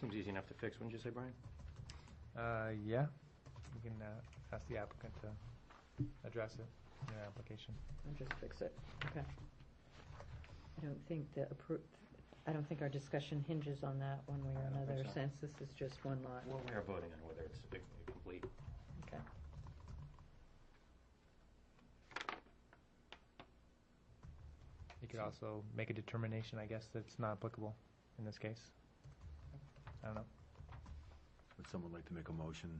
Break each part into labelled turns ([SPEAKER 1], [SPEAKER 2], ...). [SPEAKER 1] Seems easy enough to fix, wouldn't you say, Brian?
[SPEAKER 2] Uh, yeah, we can, uh, ask the applicant to address it in their application.
[SPEAKER 3] I'll just fix it, okay. I don't think the appro, I don't think our discussion hinges on that one way or
[SPEAKER 1] I don't think
[SPEAKER 3] another,
[SPEAKER 1] so.
[SPEAKER 3] since this is just one lot,
[SPEAKER 1] Well, we are voting on whether it's a complete.
[SPEAKER 3] okay.
[SPEAKER 2] You could also make a determination, I guess, that it's not applicable in this case. I don't know.
[SPEAKER 4] Would someone like to make a motion?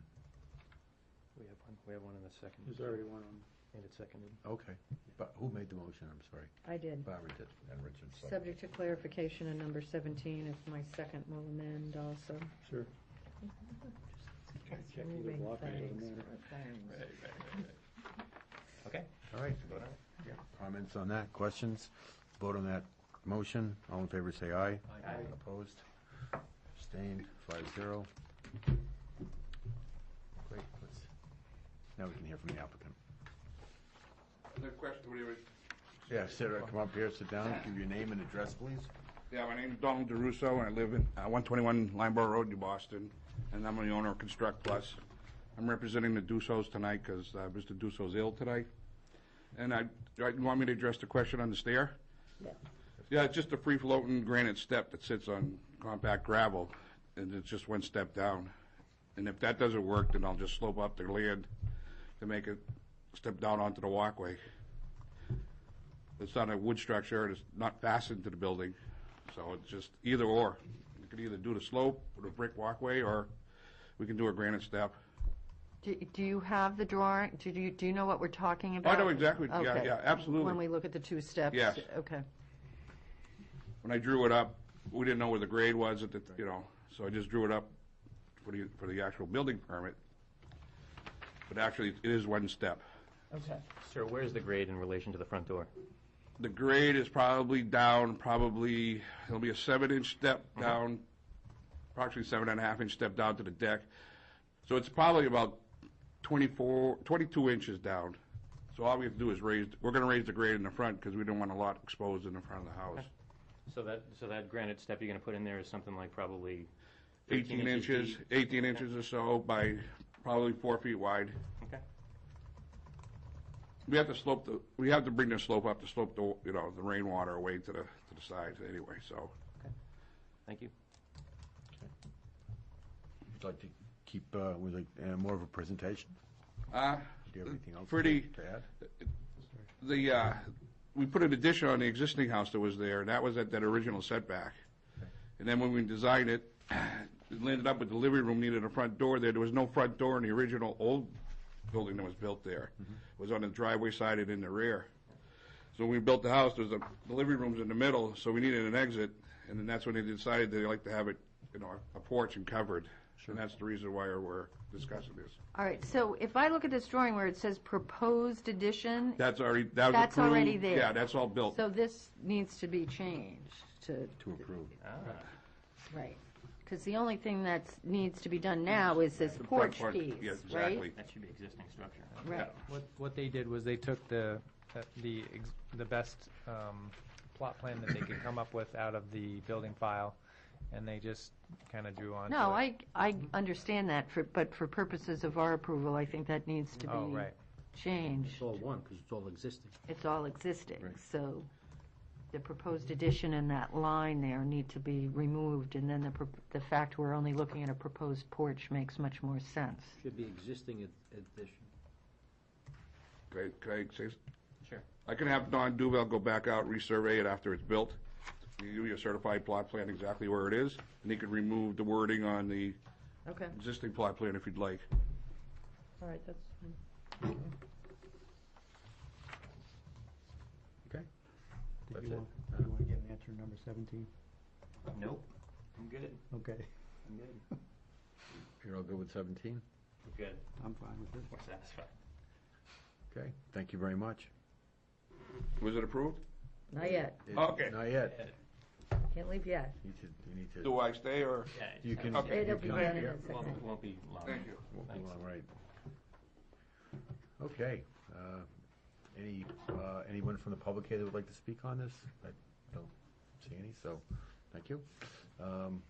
[SPEAKER 1] We have one, we have one in the second.
[SPEAKER 5] one on.
[SPEAKER 1] And it's seconded.
[SPEAKER 4] Okay, but who made the motion? I'm sorry.
[SPEAKER 3] I did.
[SPEAKER 4] Barbara did, and Richard seconded.
[SPEAKER 3] Subject to clarification in number seventeen, if my second will amend also.
[SPEAKER 5] Sure.
[SPEAKER 3] It's
[SPEAKER 5] Check either
[SPEAKER 3] moving
[SPEAKER 5] block or it doesn't
[SPEAKER 3] things
[SPEAKER 5] matter.
[SPEAKER 3] for things.
[SPEAKER 1] Okay.
[SPEAKER 4] All right,
[SPEAKER 1] vote on it.
[SPEAKER 4] comments on that, questions? Vote on that motion. All in favor, say aye.
[SPEAKER 1] Aye.
[SPEAKER 4] Opposed? Abstained, five zero. Great, let's, now we can hear from the applicant.
[SPEAKER 6] The question, what do you-
[SPEAKER 4] Yeah, Sarah, come up here, sit down, give your name and address, please.
[SPEAKER 6] yeah, my name's Donald DeRusso, and I live in uh, 121 Limeboro Road, New Boston, and I'm the owner of Construct Plus. I'm representing the Dussos tonight because Mr. Dusso's ill tonight. And I, right, you want me to address the question on the stair?
[SPEAKER 3] Yeah.
[SPEAKER 6] Yeah, it's just a free-floating granite step that sits on compact gravel, and it's just one step down. And if that doesn't work, then I'll just slope up the land to make it step down onto the walkway. It's not a wood structure, and it's not fastened to the building, so it's just either or. You could either do the slope with a brick walkway, or we can do a granite step.
[SPEAKER 7] Do do you have the drawing? Do you, do you know what we're talking
[SPEAKER 6] I
[SPEAKER 7] about?
[SPEAKER 6] know exactly, yeah,
[SPEAKER 7] Okay.
[SPEAKER 6] yeah, absolutely.
[SPEAKER 7] When we look at the two steps?
[SPEAKER 6] Yes.
[SPEAKER 7] Okay.
[SPEAKER 6] when I drew it up, we didn't know where the grade was at the, you know, so I just drew it up for the, for the actual building permit. But actually, it is one step.
[SPEAKER 3] Okay.
[SPEAKER 1] Sir, where's the grade in relation to the front door?
[SPEAKER 6] The grade is probably down, probably, it'll be a seven-inch step
[SPEAKER 4] Uh-huh.
[SPEAKER 6] down, approximately seven and a half inch step down to the deck. So it's probably about 24, 22 inches down. So all we have to do is raise, we're gonna raise the grade in the front because we don't want a lot exposed in the front of the house.
[SPEAKER 1] So that, so that granite step you're gonna put in there is something like probably 13
[SPEAKER 6] 18 inches,
[SPEAKER 1] deep?
[SPEAKER 6] 18 inches or so by probably four feet wide.
[SPEAKER 1] Okay.
[SPEAKER 6] We have to slope the, we have to bring the slope up to slope the, you know, the rainwater away to the, to the sides anyway, so.
[SPEAKER 1] Thank you.
[SPEAKER 4] Would like to keep, uh, would like, uh, more of a presentation?
[SPEAKER 6] Uh,
[SPEAKER 4] Do you have anything else?
[SPEAKER 6] Pretty-
[SPEAKER 4] to add?
[SPEAKER 6] the, uh, we put an addition on the existing house that was there, and that was at that original setback. And then when we designed it, it landed up with the living room needed a front door there. There was no front door in the original old building that was built there. It was on the driveway side and in the rear. So when we built the house, there's a, the living room's in the middle, so we needed an exit, and then that's when they decided they like to have it, you know, a porch and covered. And that's the reason why we're discussing this.
[SPEAKER 7] All right, so if I look at this drawing where it says proposed addition,
[SPEAKER 6] That's already, that was
[SPEAKER 7] That's already
[SPEAKER 6] approved.
[SPEAKER 7] there.
[SPEAKER 6] Yeah, that's all built.
[SPEAKER 7] so this needs to be changed to,
[SPEAKER 4] To approve.
[SPEAKER 7] right. Because the only thing that needs to be done now is this
[SPEAKER 6] The front
[SPEAKER 7] porch
[SPEAKER 6] part-
[SPEAKER 7] piece,
[SPEAKER 6] yeah,
[SPEAKER 7] right?
[SPEAKER 6] exactly.
[SPEAKER 1] That should be existing structure.
[SPEAKER 7] Right.
[SPEAKER 2] What, what they did was they took the, uh, the, ex- the best um, plot plan that they could come up with out of the building file, and they just kind of drew on.
[SPEAKER 7] No, I, I understand that, for but for purposes of our approval, I think that needs to
[SPEAKER 2] Oh,
[SPEAKER 7] be
[SPEAKER 2] right.
[SPEAKER 7] changed.
[SPEAKER 5] It's all one, because it's all existing.
[SPEAKER 7] It's all existing, so the proposed addition and that line there need to be removed, and then the, pro- the fact we're only looking at a proposed porch makes much more sense.
[SPEAKER 5] Should be existing ad- addition.
[SPEAKER 6] Can I- can I say s-
[SPEAKER 1] Sure.
[SPEAKER 6] I can have Don Duval go back out, resurvey it after it's built, give you a certified plot plan exactly where it is, and he could remove the wording on the
[SPEAKER 3] Okay,
[SPEAKER 6] existing plot plan if you'd like.
[SPEAKER 3] all right, that's fine.
[SPEAKER 4] That's
[SPEAKER 5] Did
[SPEAKER 4] it.
[SPEAKER 5] you want, you want to get an answer number seventeen?
[SPEAKER 1] Nope. I'm good.
[SPEAKER 5] Okay,
[SPEAKER 1] I'm good.
[SPEAKER 4] You're all good with seventeen?
[SPEAKER 1] I'm good.
[SPEAKER 5] I'm fine with it.
[SPEAKER 1] We're satisfied.
[SPEAKER 4] Okay, thank you very much.
[SPEAKER 6] Was it approved?
[SPEAKER 3] Not yet,
[SPEAKER 6] Okay.
[SPEAKER 4] Not yet.
[SPEAKER 3] can't leave yet.
[SPEAKER 4] You need to, you need to.
[SPEAKER 6] Do I stay or?
[SPEAKER 1] Yeah, it's-
[SPEAKER 4] You can.
[SPEAKER 6] Okay.
[SPEAKER 3] It'll
[SPEAKER 4] you
[SPEAKER 3] be
[SPEAKER 4] can-
[SPEAKER 3] done in a
[SPEAKER 1] Won't
[SPEAKER 3] second.
[SPEAKER 1] won't be long.
[SPEAKER 6] Thank you.
[SPEAKER 4] Won't be
[SPEAKER 1] Thanks.
[SPEAKER 4] long, right. Okay, uh, any, uh, anyone from the public here that would like to speak on this? I don't see any, so, thank you. Um,